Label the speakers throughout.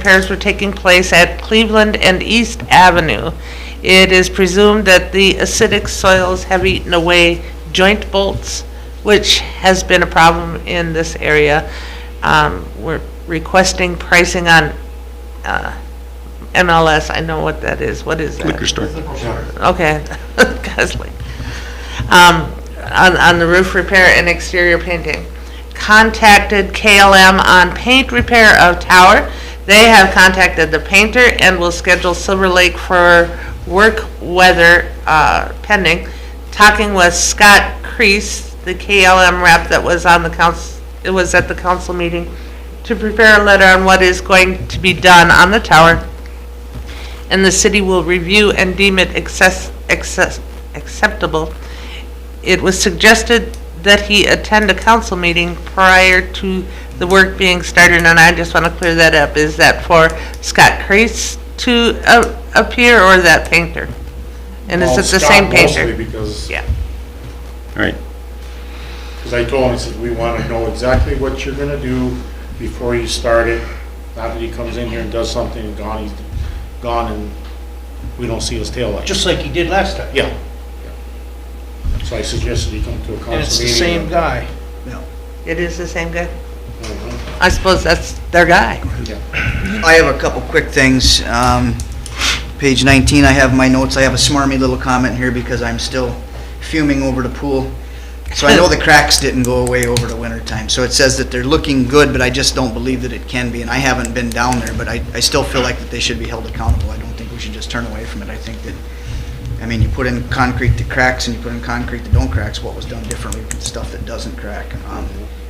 Speaker 1: repairs were taking place at Cleveland and East Avenue. It is presumed that the acidic soils have eaten away joint bolts, which has been a problem in this area. Um, We're requesting pricing on uh, MLS, I know what that is, what is that?
Speaker 2: liquor store.
Speaker 1: Okay, Gosling. Um, on, on the roof repair and exterior painting. Contacted KLM on paint repair of tower. They have contacted the painter and will schedule Silver Lake for work weather, uh, pending. Talking with Scott Crease, the KLM rep that was on the council, it was at the council meeting, to prepare a letter on what is going to be done on the tower and the city will review and deem it access, access, acceptable. It was suggested that he attend a council meeting prior to the work being started, and I just want to clear that up. Is that for Scott Crease to uh, appear or that painter? And is
Speaker 3: Well,
Speaker 1: it the
Speaker 3: Scott
Speaker 1: same
Speaker 3: Mostly
Speaker 1: painter?
Speaker 3: because,
Speaker 1: Yeah,
Speaker 2: All right,
Speaker 3: because I told him, I said, we want to know exactly what you're gonna do before you start it. Not that he comes in here and does something and gone, he's gone and we don't see his taillight.
Speaker 4: just like he did last time.
Speaker 3: Yeah. yeah. So I suggested he come to a council meeting.
Speaker 4: And it's the same guy. No.
Speaker 1: it is the same guy.
Speaker 3: Mhm.
Speaker 1: I suppose that's their guy.
Speaker 5: I have a couple quick things. Um, Page 19, I have my notes, I have a smarmy little comment here because I'm still fuming over the pool. So I know the cracks didn't go away over the winter time. So it says that they're looking good, but I just don't believe that it can be. And I haven't been down there, but I, I still feel like that they should be held accountable. I don't think we should just turn away from it. I think that, I mean, you put in concrete that cracks and you put in concrete that don't cracks, what was done differently with stuff that doesn't crack. Um,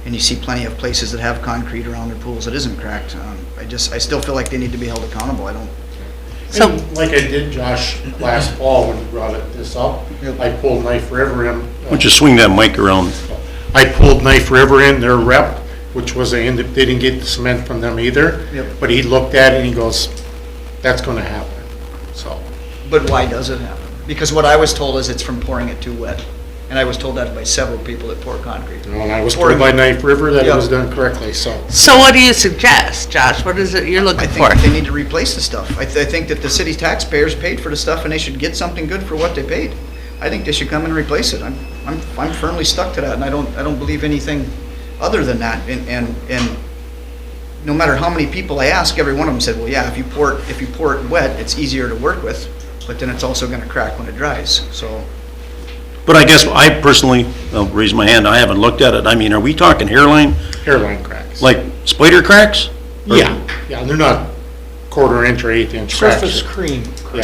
Speaker 5: And you see plenty of places that have concrete around their pools that isn't cracked. Um, I just, I still feel like they need to be held accountable. I don't,
Speaker 1: So-
Speaker 3: And like I did Josh last fall when he brought it- this up, I pulled Knife River in.
Speaker 2: why don't you swing that mic around?
Speaker 3: I pulled Knife River in, their rep, which was, they ended- they didn't get the cement from them either.
Speaker 5: Yep.
Speaker 3: But he looked at it and he goes, that's gonna happen, so.
Speaker 5: But why does it happen? Because what I was told is it's from pouring it too wet. And I was told that by several people that pour concrete.
Speaker 3: you know, And I was told by Knife River that it was done correctly, so.
Speaker 1: So what do you suggest, Josh? What is it you're
Speaker 5: I
Speaker 1: looking
Speaker 5: think
Speaker 1: for?
Speaker 5: that they need to replace the stuff. I, th- I think that the city taxpayers paid for the stuff and they should get something good for what they paid. I think they should come and replace it. I'm, I'm, I'm firmly stuck to that and I don't, I don't believe anything other than that. And, and, and no matter how many people I ask, every one of them said, well, yeah, if you pour, it- if you pour it wet, it's easier to work with, but then it's also gonna crack when it dries, so.
Speaker 2: But I guess I personally, I'll raise my hand, I haven't looked at it. I mean, are we talking hairline,
Speaker 3: Hairline cracks.
Speaker 2: like spider cracks? Or-
Speaker 3: Yeah, yeah, they're not quarter inch or eighth inch cracks.
Speaker 4: Surface cream.
Speaker 3: Yeah.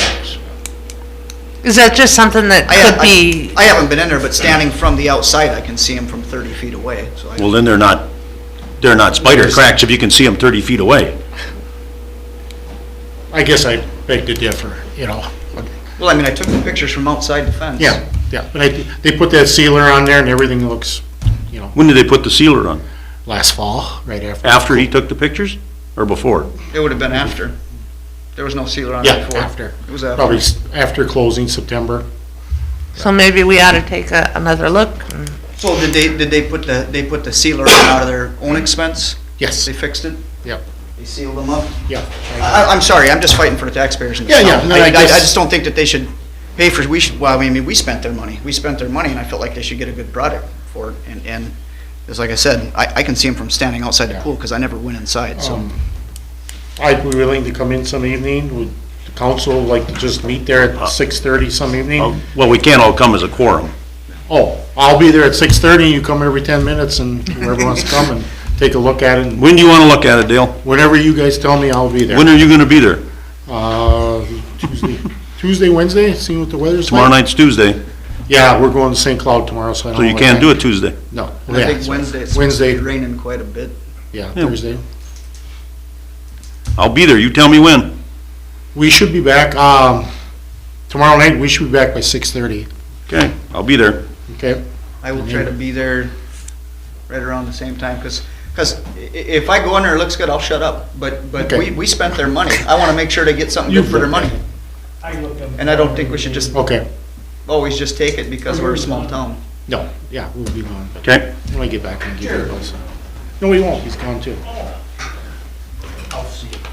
Speaker 1: Is that just something that
Speaker 5: I-
Speaker 1: could
Speaker 5: I-
Speaker 1: be?
Speaker 5: I haven't been in there, but standing from the outside, I can see them from 30 feet away, so I...
Speaker 2: Well, then they're not, they're not spider cracks if you can see them 30 feet away.
Speaker 3: I guess I beg to differ, you know.
Speaker 5: Well, I mean, I took the pictures from outside the fence.
Speaker 3: Yeah, yeah, but I, they put that sealer on there and everything looks, you know,
Speaker 2: When did they put the sealer on?
Speaker 3: last fall, right after.
Speaker 2: After he took the pictures or before?
Speaker 5: It would have been after. There was no sealer on
Speaker 3: Yeah,
Speaker 5: it before.
Speaker 3: after,
Speaker 5: It was after.
Speaker 3: probably s- after closing September.
Speaker 1: So maybe we ought to take a, another look. and-
Speaker 5: So did they, did they put the, they put the sealer on out of their own expense?
Speaker 3: Yes,
Speaker 5: They fixed it?
Speaker 3: Yep.
Speaker 5: They sealed them up?
Speaker 3: yeah.
Speaker 5: I, I'm sorry, I'm just fighting for the taxpayers in this
Speaker 3: Yeah, yeah,
Speaker 5: town.
Speaker 3: no,
Speaker 5: I,
Speaker 3: I
Speaker 5: I I
Speaker 3: guess-
Speaker 5: just don't think that they should pay for, we should, well, I mean, we spent their money. We spent their money, and I felt like they should get a good product for it. And, and, it's like I said, I, I can see them from standing outside the
Speaker 3: Yeah.
Speaker 5: pool, because I never went inside, so.
Speaker 3: Um, I'd be willing to come in some evening, would the council like to just meet there
Speaker 2: Uh,
Speaker 3: at six thirty some
Speaker 2: Oh,
Speaker 3: evening?
Speaker 2: Well, we can't all come as a quorum.
Speaker 3: Oh, I'll be there at six thirty, you come every ten minutes and whoever wants to come and take a look at it. and
Speaker 2: When do you want to look at it, Dale?
Speaker 3: Whenever you guys tell me, I'll be there.
Speaker 2: When are you going to be there?
Speaker 3: Uh, Tuesday, Tuesday, Wednesday, seeing what the weather's like.
Speaker 2: Tomorrow night's Tuesday,
Speaker 3: Yeah, we're going to St. Cloud tomorrow, so I don't.
Speaker 2: so you
Speaker 3: know
Speaker 2: can't do
Speaker 3: what
Speaker 2: it Tuesday.
Speaker 3: time. No.
Speaker 5: And I
Speaker 3: yeah,
Speaker 5: think
Speaker 3: so
Speaker 5: Wednesday, it's supposed to
Speaker 3: Wednesday,
Speaker 5: be raining quite a bit.
Speaker 3: yeah,
Speaker 2: Yeah.
Speaker 3: Thursday.
Speaker 2: I'll be there, you tell me when.
Speaker 3: We should be back, um, tomorrow night, we should be back by six thirty,
Speaker 2: Okay, I'll be there.
Speaker 3: okay?
Speaker 5: I will try to be there right around the same time, because, if I go in there, it looks good, I'll shut up. But, but
Speaker 3: Okay.
Speaker 5: we, we spent their money. I want to make sure they get something good for their money. And I don't think we should just
Speaker 3: Okay,
Speaker 5: always just take it because we're a small town.
Speaker 3: no, yeah, we'll be gone, but
Speaker 2: Okay.
Speaker 3: when I get back, I'll give you a buzz. No, we won't, he's gone too.
Speaker 4: I'll see it.